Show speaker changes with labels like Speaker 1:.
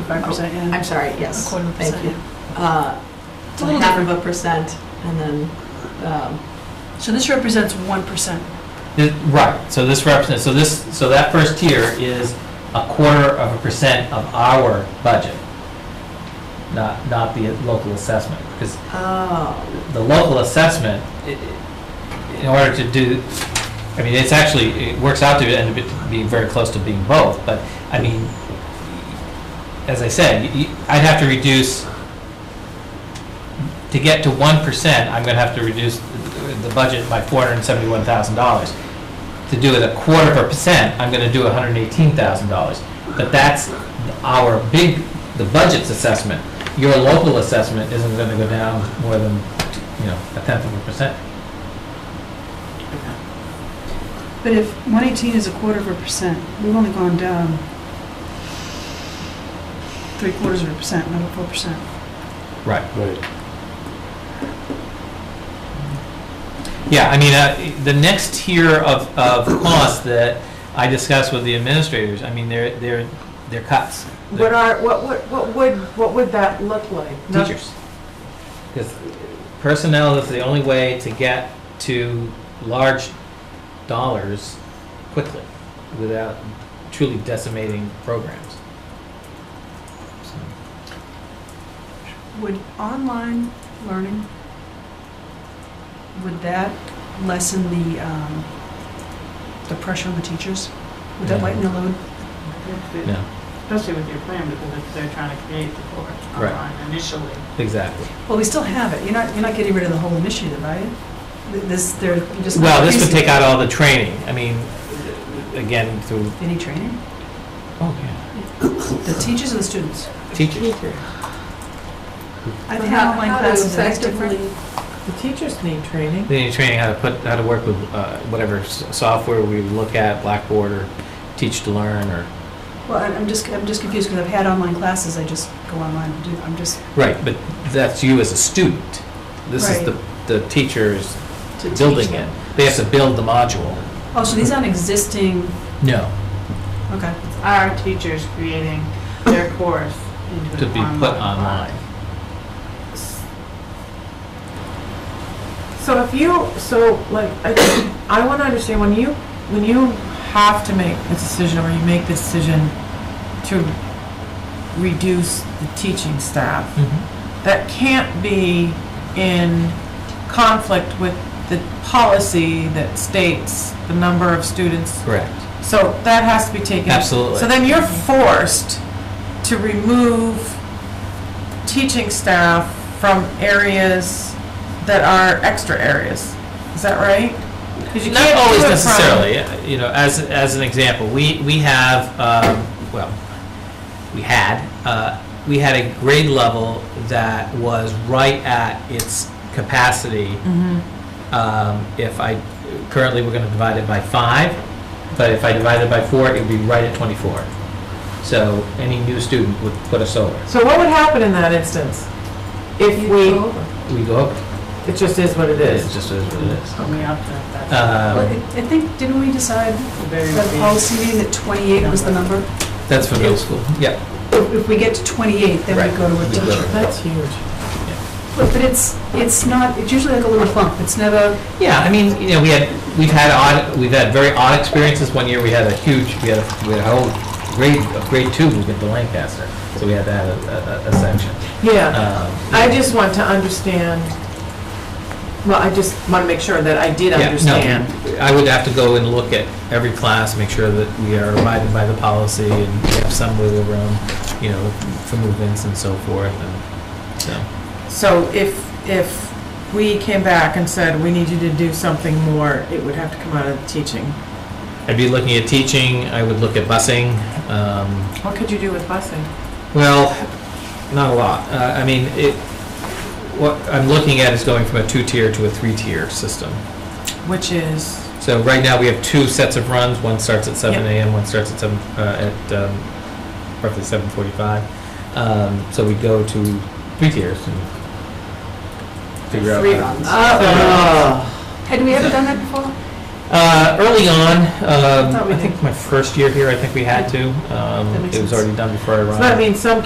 Speaker 1: 0.25%, yeah.
Speaker 2: I'm sorry, yes.
Speaker 1: A quarter of a
Speaker 2: Thank
Speaker 1: percent,
Speaker 2: you. Uh,
Speaker 1: It's a
Speaker 2: A
Speaker 1: little
Speaker 2: half of a percent, and then, um,
Speaker 1: So this represents 1%.
Speaker 3: Th- Right, so this represents, so this, so that first tier is a quarter of a percent of our budget, not, not the local assessment, because
Speaker 2: oh,
Speaker 3: the local assessment, i- i- in order to do, I mean, it's actually, it works out to end up being very close to being both, but, I mean, as I said, y- y- I'd have to reduce, to get to one percent, I'm gonna have to reduce the- the budget by four hundred and seventy-one thousand dollars. To do it a quarter of a percent, I'm gonna do hundred and eighteen thousand dollars. But that's our big, the budget's assessment. Your local assessment isn't gonna go down more than, you know, a tenth of a percent.
Speaker 4: But if 118 is a quarter of a percent, we've only gone down three quarters of a percent, not a full percent.
Speaker 3: Right.
Speaker 5: Right.
Speaker 3: Yeah, I mean, uh, the next tier of, of costs that I discussed with the administrators, I mean, they're, they're, they're cuts. They're-
Speaker 6: What are, what, what, what would, what would that look like? Not-
Speaker 3: teachers. Because personnel is the only way to get to large dollars quickly without truly decimating programs. So,
Speaker 4: Would online learning, would that lessen the, um, the pressure on the teachers? Would that lighten the load?
Speaker 3: No,
Speaker 6: Especially with your plan, because if they're trying to create the course
Speaker 3: Right.
Speaker 6: online initially.
Speaker 3: exactly.
Speaker 4: Well, we still have it. You're not, you're not getting rid of the whole initiative, are you? Th- This, they're you're just.
Speaker 3: Well, this would
Speaker 4: increasing-
Speaker 3: take out all the training. I mean, again, through,
Speaker 4: Any training?
Speaker 3: oh, yeah,
Speaker 4: The teachers or the students?
Speaker 3: teachers.
Speaker 4: I've
Speaker 2: But
Speaker 4: had
Speaker 2: how-
Speaker 4: online
Speaker 2: how do
Speaker 4: classes that
Speaker 2: effectively-
Speaker 4: effectively
Speaker 6: The teachers need training.
Speaker 3: They need training how to put, how to work with uh, whatever s- software we look at, Blackboard or Teach to Learn or
Speaker 4: Well, I'm I'm just, I'm just confused because I've had online classes, I just go online and do, I'm just.
Speaker 3: Right, but that's you as a student. This is the, the teachers
Speaker 4: to teach
Speaker 3: building
Speaker 4: them.
Speaker 3: it. They have to build the module.
Speaker 4: Oh, so these aren't existing,
Speaker 3: No.
Speaker 4: okay.
Speaker 6: Our teachers creating their course into an
Speaker 3: To be put online.
Speaker 7: So if you, so like, I, I want to understand when you, when you have to make a decision or you make the decision to reduce the teaching staff,
Speaker 3: Mm-hmm.
Speaker 7: that can't be in conflict with the policy that states the number of students.
Speaker 3: Correct.
Speaker 7: So that has to be taken.
Speaker 3: Absolutely.
Speaker 7: So then you're forced to remove teaching staff from areas that are extra areas. Is that right? 'Cause you
Speaker 3: Not
Speaker 7: can't do
Speaker 3: always
Speaker 7: it from-
Speaker 3: necessarily, uh, you know, as, as an example, we, we have, um, well, we had, uh, we had a grade level that was right at its capacity
Speaker 7: Mhm.
Speaker 4: Mm-hmm.
Speaker 3: Um, If I, currently, we're going to divide it by five, but if I divide it by four, it would be right at 24. So any new student would put us over.
Speaker 7: So what would happen in that instance? If we,
Speaker 3: We go over.
Speaker 7: it just is what it
Speaker 3: It
Speaker 7: is.
Speaker 3: just is what it is.
Speaker 6: Put me up to that.
Speaker 4: Well, I
Speaker 3: Um,
Speaker 4: I think, didn't we decide
Speaker 6: Very
Speaker 4: at the policy meeting that 28 was the number?
Speaker 3: That's for middle school. Yeah.
Speaker 4: If if we get to 28, then
Speaker 3: Right.
Speaker 4: we go to a
Speaker 3: We go
Speaker 4: teacher.
Speaker 3: to-
Speaker 7: That's huge.
Speaker 4: But but it's, it's not, it's usually like a little bump, it's never,
Speaker 3: Yeah, I mean, you know, we had, we've had odd, we've had very odd experiences. One year, we had a huge, we had a, we had a whole grade, of grade two moved into Lancaster. So we had that, a, a- a section.
Speaker 7: Yeah,
Speaker 3: Um,
Speaker 7: I just want to understand, well, I just want to make sure that I did
Speaker 3: Yeah, no.
Speaker 7: understand.
Speaker 3: I would have to go and look at every class, make sure that we are abiding by the policy and we have some wiggle room, you know, for movements and so forth, and so.
Speaker 7: So if, if we came back and said, we need you to do something more, it would have to come out of the teaching.
Speaker 3: I'd be looking at teaching, I would look at busing, um,
Speaker 7: What could you do with busing?
Speaker 3: Well, not a lot. Uh, I mean, it, what I'm looking at is going from a two-tier to a three-tier system.
Speaker 7: Which is,
Speaker 3: So right now, we have two sets of runs. One starts at seven
Speaker 7: Yep.
Speaker 3: AM, one starts at seven, uh, at um, roughly seven forty-five. Um, So we go to three tiers and figure out.
Speaker 2: three
Speaker 3: how-
Speaker 2: runs.
Speaker 7: oh,
Speaker 2: Ah. Had we ever done that before?
Speaker 3: Uh, Early on, um,
Speaker 2: thought we
Speaker 3: I think my first year here, I think we had to. Um,
Speaker 2: That makes
Speaker 3: It was
Speaker 2: sense.
Speaker 3: already done before I arrived.
Speaker 7: So that means some